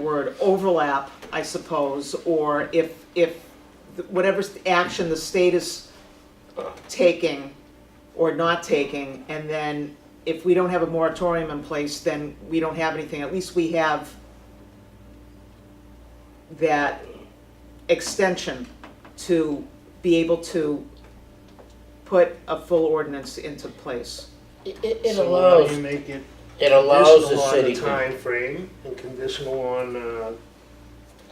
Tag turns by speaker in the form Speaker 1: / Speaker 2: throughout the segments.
Speaker 1: word, overlap, I suppose, or if, if, th- whatever s- action the state is taking or not taking, and then if we don't have a moratorium in place, then we don't have anything, at least we have that extension to be able to put a full ordinance into place.
Speaker 2: It, it it
Speaker 3: So why
Speaker 2: allows,
Speaker 3: do you make it
Speaker 2: it allows the
Speaker 3: conditional on
Speaker 2: city.
Speaker 3: the
Speaker 2: to-
Speaker 3: timeframe and conditional on, uh,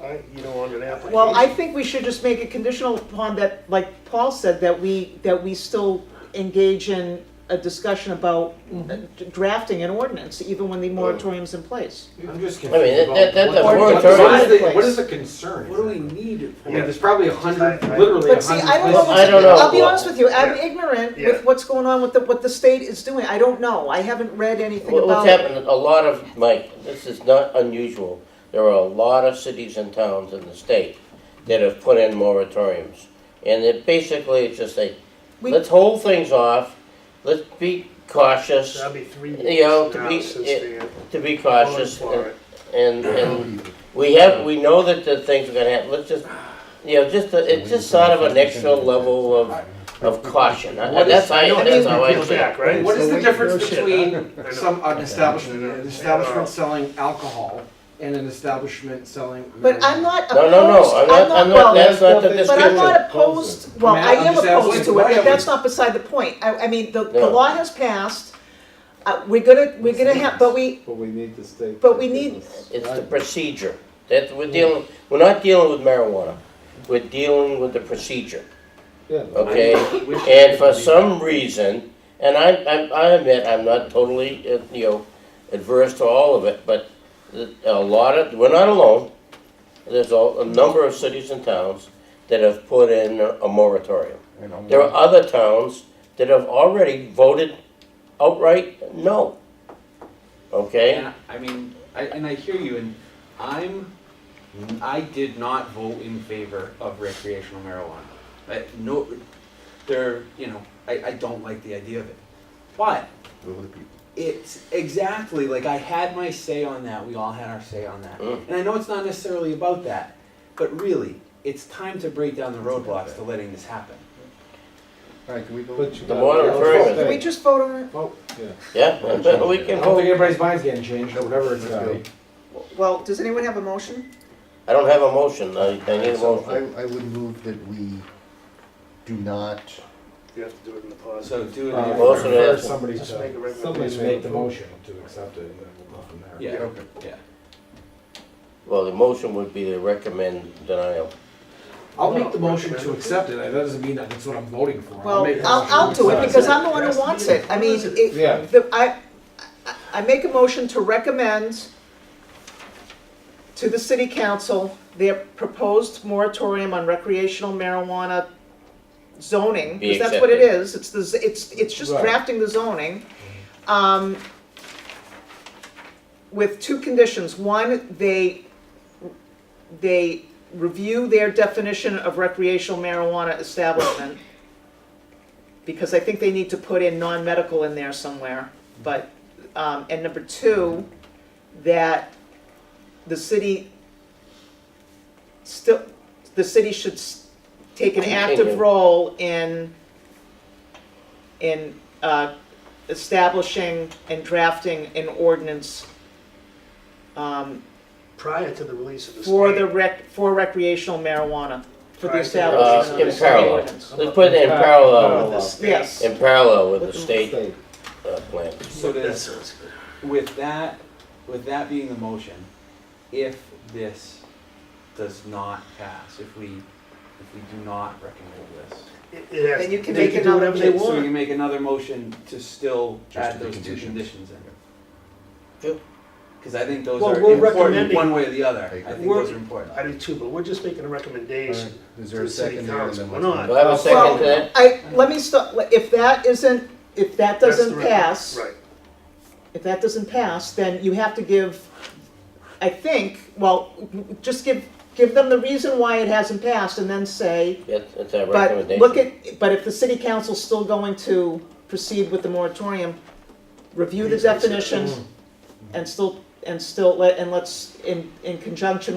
Speaker 3: I, you know, on an application?
Speaker 1: Well, I think we should just make it conditional upon that, like Paul said, that we, that we still engage in a discussion about uh,
Speaker 2: Mm-hmm.
Speaker 1: drafting an ordinance, even when the moratorium's in place.
Speaker 4: I'm just
Speaker 2: I mean,
Speaker 4: confused
Speaker 2: that, that,
Speaker 4: about.
Speaker 2: that's a
Speaker 1: Or-
Speaker 4: What what
Speaker 2: moratorium.
Speaker 4: is the, what is the concern?
Speaker 5: What do we need it
Speaker 4: I
Speaker 5: for?
Speaker 4: mean, there's probably a hundred, literally
Speaker 1: But
Speaker 4: a
Speaker 1: see,
Speaker 4: hundred.
Speaker 1: I don't know,
Speaker 2: I
Speaker 1: what's-
Speaker 2: don't know.
Speaker 1: I'll be honest with you, I'm
Speaker 3: Yeah.
Speaker 1: ignorant
Speaker 3: Yeah.
Speaker 1: with what's going on with the, what the state is doing, I don't know, I haven't read anything
Speaker 2: What- What's
Speaker 1: about it.
Speaker 2: happened, a lot of, Mike, this is not unusual. There are a lot of cities and towns in the state that have put in moratoriums. And it basically, it's just a,
Speaker 1: We-
Speaker 2: let's hold things off, let's be cautious,
Speaker 3: That'd be three
Speaker 2: You know,
Speaker 3: years
Speaker 2: to
Speaker 3: now
Speaker 2: be-
Speaker 3: since
Speaker 2: it- to
Speaker 3: the.
Speaker 2: be cautious.
Speaker 3: Calling for it.
Speaker 2: And, and we have, we know that the things are gonna happen, let's just, you know, just, a- it's just sort of an extra level of, of caution. I- I- That's
Speaker 4: I
Speaker 2: how,
Speaker 4: know,
Speaker 2: that's
Speaker 4: I
Speaker 2: how
Speaker 4: mean,
Speaker 2: I
Speaker 3: Peel
Speaker 2: see it.
Speaker 3: back, right?
Speaker 4: What is the difference
Speaker 3: Bullshit.
Speaker 4: between
Speaker 3: I know.
Speaker 4: some, an establishment, an
Speaker 3: Yeah.
Speaker 4: establishment selling alcohol and an establishment selling.
Speaker 1: But I'm
Speaker 4: marijuana?
Speaker 1: not
Speaker 2: No,
Speaker 1: opposed,
Speaker 2: no, no, I'm not, I'm not,
Speaker 1: well,
Speaker 2: that's not the
Speaker 4: But
Speaker 1: But I'm
Speaker 2: description.
Speaker 1: not opposed, well,
Speaker 4: I mean,
Speaker 1: I
Speaker 4: I'm
Speaker 1: am
Speaker 4: just
Speaker 1: opposed
Speaker 4: asking
Speaker 1: to it,
Speaker 4: why
Speaker 1: but
Speaker 4: are
Speaker 1: that's
Speaker 4: we-
Speaker 1: not beside the point. I, I mean, the, the
Speaker 2: No.
Speaker 1: law has passed, uh, we're gonna, we're gonna have, but we,
Speaker 6: But we need to stay.
Speaker 1: But we need-
Speaker 2: It's the procedure. That, we're dealing, we're not dealing with marijuana. We're dealing with the procedure,
Speaker 6: Yeah.
Speaker 2: okay? And for some reason, and I, I, I admit, I'm not totally, uh, you know, adverse to all of it, but the- a lot of, we're not alone. There's a, a number of cities and towns that have put in a a moratorium. There are other towns that have already voted outright no. Okay?
Speaker 7: And I I mean, I, and I hear you, and I'm, I did not vote in favor of recreational marijuana. I, no, there, you know, I, I don't like the idea of it. But it's exactly like I had my say on that. We all had our say on that.
Speaker 2: Mm.
Speaker 7: And I know it's not necessarily about that, but really, it's time to break down the roadblocks to letting this hapen.
Speaker 6: Alright, can we go? But you
Speaker 2: The
Speaker 6: gotta-
Speaker 2: moratorium
Speaker 1: can we just vote on it?
Speaker 2: Yeah, we
Speaker 4: I
Speaker 2: can
Speaker 4: don't
Speaker 2: vote.
Speaker 4: think anybody's mind's getting changed or whatever it's gonna be.
Speaker 1: Well, does anyone have a motion?
Speaker 2: I don't have a motion, I, I need a
Speaker 8: So
Speaker 2: motion.
Speaker 8: I, I would move that we do not,
Speaker 3: You have to do it in the pause.
Speaker 7: So do it.
Speaker 4: Uh,
Speaker 2: Well, also
Speaker 4: for
Speaker 2: that-
Speaker 4: Somebody
Speaker 3: Just make a
Speaker 4: to,
Speaker 3: recommendation.
Speaker 4: somebody to make the motion to accept it and then we'll go from there.
Speaker 7: yeah,
Speaker 3: okay.
Speaker 7: yeah.
Speaker 2: Well, the motion would be to recommend denial.
Speaker 4: I'll make the motion to accept it, that doesn't mean that it's what I'm voting for.
Speaker 1: Well,
Speaker 4: make the motion
Speaker 1: I'll, I'll
Speaker 4: to
Speaker 1: do it
Speaker 4: accept
Speaker 1: because I'm the one who wants it. I mean,
Speaker 6: Yeah.
Speaker 1: it, the, I, I- I make a motion to recommend to the city council their proposed moratorium on recreational marijuana zoning,
Speaker 2: Be
Speaker 1: because that's what it
Speaker 2: accepted.
Speaker 1: is. It's the, z- it's, it's just
Speaker 6: Right.
Speaker 1: drafting the zoning. Um, with two conditions. One, they, they review their definition of recreational marijuana establishment. Because I think they need to put in non-medical in there somewhere, but, um, and number two, that the city still, the city should s- take an active
Speaker 2: Continue.
Speaker 1: role in, in, uh, establishing and drafting an ordinance, um,
Speaker 3: Prior to the release of the state.
Speaker 1: for the rec, for recreational marijuana, for the
Speaker 3: Right.
Speaker 2: Uh,
Speaker 1: establishment
Speaker 2: in
Speaker 1: of the
Speaker 2: parallel,
Speaker 1: ordinance.
Speaker 2: let's put it in parallel,
Speaker 1: Yes,
Speaker 2: in parallel with the
Speaker 6: Stay.
Speaker 2: state uh, plan.
Speaker 7: So
Speaker 3: That
Speaker 7: does
Speaker 3: sounds good.
Speaker 7: With that, with that being the motion, if this does not pass, if we, if we do not recommend this.
Speaker 3: It- it has-
Speaker 1: Then you can
Speaker 3: they
Speaker 1: make
Speaker 3: do
Speaker 1: another-
Speaker 3: whatever they
Speaker 1: so
Speaker 7: So
Speaker 3: want.
Speaker 7: we make another motion to still
Speaker 8: Just
Speaker 7: add
Speaker 8: the
Speaker 7: those two
Speaker 8: conditions.
Speaker 7: conditions in.
Speaker 2: Yep.
Speaker 7: Cause I think those
Speaker 3: Well,
Speaker 7: are
Speaker 3: we're
Speaker 7: important,
Speaker 3: recommending-
Speaker 7: one way or the other,
Speaker 8: I
Speaker 7: I think
Speaker 3: agree.
Speaker 7: those are important.
Speaker 3: I do too, but we're just making a recommendation.
Speaker 8: is there
Speaker 3: To
Speaker 8: a
Speaker 3: the city
Speaker 8: second there? and
Speaker 3: council,
Speaker 8: then
Speaker 3: why
Speaker 8: let's-
Speaker 3: not?
Speaker 2: Do I have a second to that?
Speaker 1: I, let me stop, if that isn't, if that
Speaker 3: That's the
Speaker 1: doesn't
Speaker 3: rec-
Speaker 1: pass,
Speaker 3: Right.
Speaker 1: if that doesn't pass, then you have to give, I think, well, just give, give them the reason why it hasn't passed and then say,
Speaker 2: That's, that's our
Speaker 1: but look
Speaker 2: recommendation.
Speaker 1: at, but if the city council's still going to proceed with the moratorium, review the
Speaker 3: Please, I said-
Speaker 1: definition and still, and still let, and let's, in, in conjunction